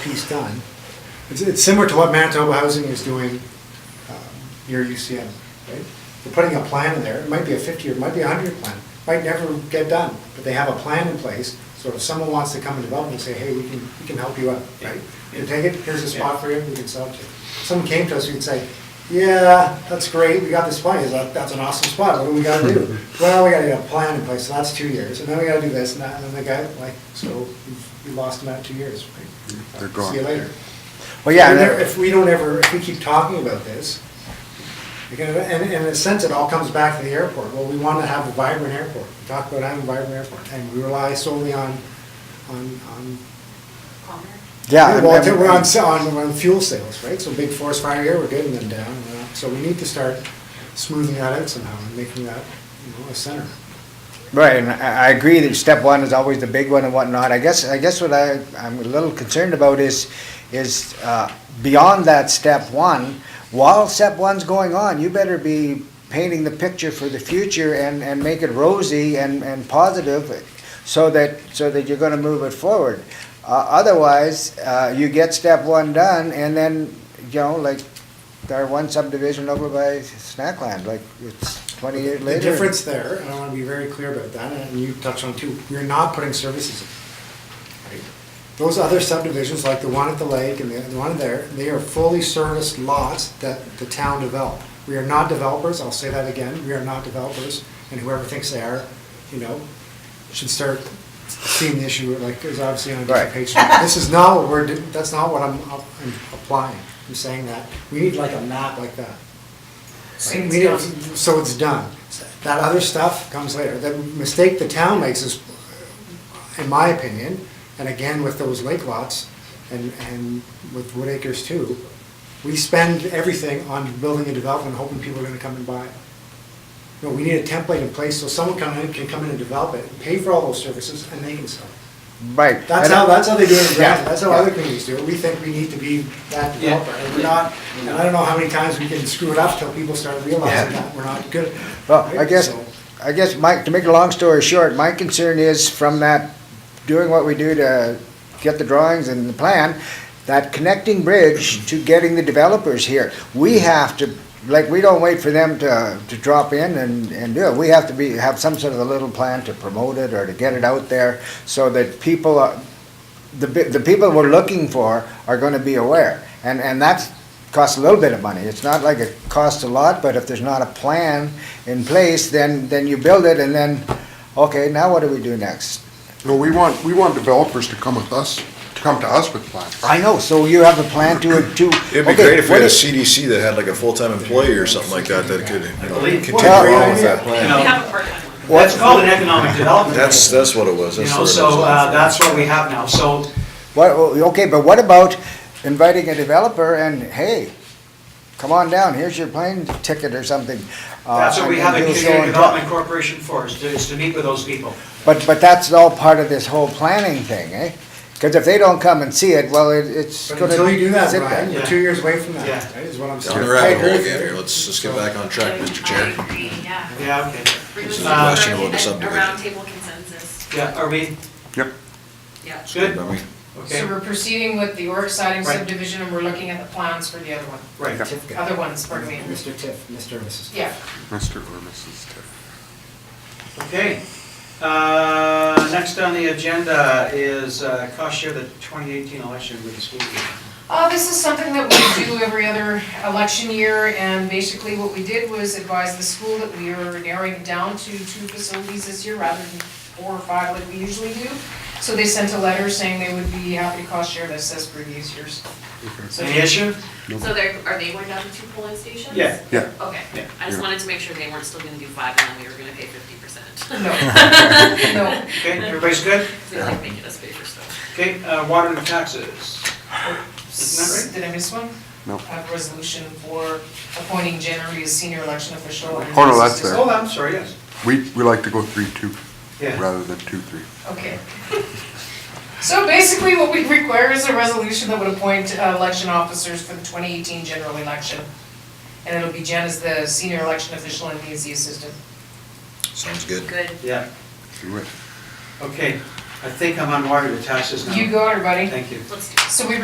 piece done. It's, it's similar to what Manitoba Housing is doing um, near UCM, right? They're putting a plan in there, it might be a fifty-year, it might be a hundred-year plan, might never get done, but they have a plan in place, so if someone wants to come and develop and say, hey, we can, we can help you out, right? You take it, here's a spot for you, we can sell it to you. If Someone came to us, we'd say, yeah, that's great, we got this plan, He's like, that's an awesome spot, what do we gotta do? Well, we gotta get a plan in place, so that's two years, and then we gotta do this, and that, and then the guy, like, so we lost him at two years, right? They're gone. See you later. Well, yeah, And and- there- If we don't ever, if we keep talking about this, you can- and, and in a sense, it all comes back to the airport. Well, we want to have a vibrant airport. We talk about having a vibrant airport, and we rely solely on, on, on. Yeah. and- Well, and- we're on, sa- on, on fuel sales, right? So big forest fire here, we're getting them down. you know. So we need to start smoothing that out somehow and making that, you know, a center. Right, and I, I agree that step one is always the big one and whatnot. I guess, I guess what I, I'm a little concerned about is, is, uh, beyond that step one, while step one's going on, you better be painting the picture for the future and, and make it rosy and, and positive so that, so that you're gonna move it forward. Uh, otherwise, uh, you get step one done and then, you know, like, our one subdivision over by Snackland, like, it's twenty years The later. difference there, and I want to be very clear about that, and you touched on it too, you're not putting services in. right? Those other subdivisions, like the one at the lake and the the one there, they are fully serviced lots that the town developed. We are not developers, I'll say that again, we are not developers, and whoever thinks they are, you know, should start seeing the issue, like, is obviously on a different Right. page. This is not what we're, do- that's not what I'm I'm applying, I'm saying that. We need like a map like that. Right, we don't- So it's done. That other stuff comes later. The mistake the town makes is, in my opinion, and again with those lake lots and, and with Wood Acres too, we spend everything on building a development, hoping people are gonna come and buy it. No, we need a template in place so someone come in, can come in and develop it, pay for all those services, and they can sell it. Right. That's And how, I- that's how they do it in Yeah. Granton, that's how other communities do it. We think we need to be that developer, and we're not, and I don't know how many times we can screw it up till people start realizing that we're not good. Well, I Right? guess, So- I guess, Mike, to make a long story short, my concern is from that, doing what we do to get the drawings and the plan, that connecting bridge to getting the developers here. We have to, like, we don't wait for them to, to drop in and, and do it. We have to be, have some sort of a little plan to promote it or to get it out there so that people, are- the, bi- the people we're looking for are gonna be aware. And, and that's, costs a little bit of money. It's not like it costs a lot, but if there's not a plan in place, then, then you build it and then, okay, now what do we do next? No, we want, we want developers to come with us, to come to us with plans. I know, so you have a plan to, to. It'd be okay, great if we what had a is- CDC that had like a full-time employee or something like that, that could, you know, believe- continue Well, along with that You plan. know, We have a part-time one. That's called an economic development. That's, that's what it was. You That's know, what it so, was. uh, that's what we have now, so, What, okay, but what about inviting a developer and, hey, come on down, here's your plane ticket or something. uh, that's what we and- have and a do so community and development corporation for, is to, is to meet with those people. But, but that's all part of this whole planning thing, eh? Cause if they don't come and see it, well, it, it's But gonna. until you do that, sit there. Brian, you're two years away from that, Yeah. right, is what I'm saying. Down the I rabbit agree hole with again you. here. Let's, let's get back on track, Mr. I Chair. agree, yeah. Yeah, okay, We It's was not looking questionable to for subdivision. a roundtable consensus, yeah, are we, Yep. yeah. good? Are we- So Okay, we're proceeding with the Oryx siding Right. subdivision and we're looking at the plans for the other one, right, other ones, pardon me. Mr. Tiff, Mr. and Mrs. Tiff. Yeah, Mr. or Mrs. Tiff. okay. Uh, next on the agenda is, uh, cost share the twenty eighteen election with the school. board. uh, this is something that we do every other election year and basically what we did was advise the school that we are narrowing it down to two facilities this year rather than four or five like we usually do. So they sent a letter saying they would be happy to cost share this as previous years. So Any issue? So they're, are they going down to two polling stations? Yeah. Yeah. Okay, Yeah. I just Yeah. wanted to make sure they weren't still gonna do five and then we were gonna pay fifty percent. No, no, Okay, everybody's good? They like making us pay for stuff. Okay, uh, water and taxes. Isn't that Did I miss one? No. I have a resolution for appointing Jen Reed as senior election official. and Oh, no, that's right? There. Oh, I'm sorry, yes, We, we like to go three-two yeah. rather than two-three. Okay. So basically, what we require is a resolution that would appoint uh, election officers for the 2018 general election. And it'll be Jen as the senior election official and me as the assistant. Sounds good. Good. Yeah, Do it. okay, I think I'm on water and taxes now. You go, everybody. Thank you. Let's do it. So we